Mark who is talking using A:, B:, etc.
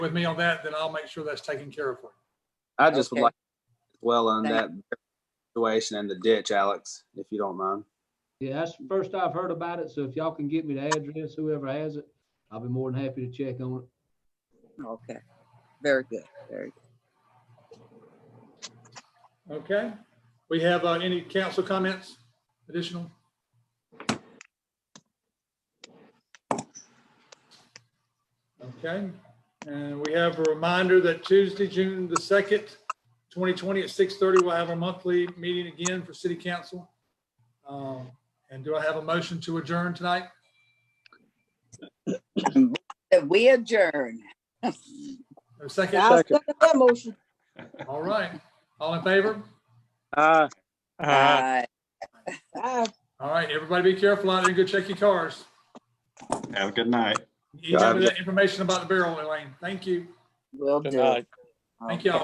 A: with me on that, then I'll make sure that's taken care of for you.
B: I just would
C: Okay.
B: like as well on that
C: That-
B: situation and the ditch, Alex, if you don't mind.
D: Yeah, that's the first I've heard about it, so if y'all can get me the address, whoever has it, I'll be more than happy to check on it.
C: Okay, very good, very good.
A: Okay? We have uh, any council comments additional? Okay, and we have a reminder that Tuesday, June the 2nd, 2020 at 6:30, we'll have our monthly meeting again for city council. Um, And do I have a motion to adjourn tonight?
C: That we adjourn.
A: A second?
E: I'll second that motion.
A: All right. All in favor?
B: Uh,
F: Uh-huh.
C: Bye.
E: Aye.
A: All right, everybody be careful out there and go check your cars.
G: Have a good night.
A: You got
B: God.
A: that information about the barrel, Elaine. Thank you.
C: Will
F: Good
C: do.
F: night.
A: Thank y'all.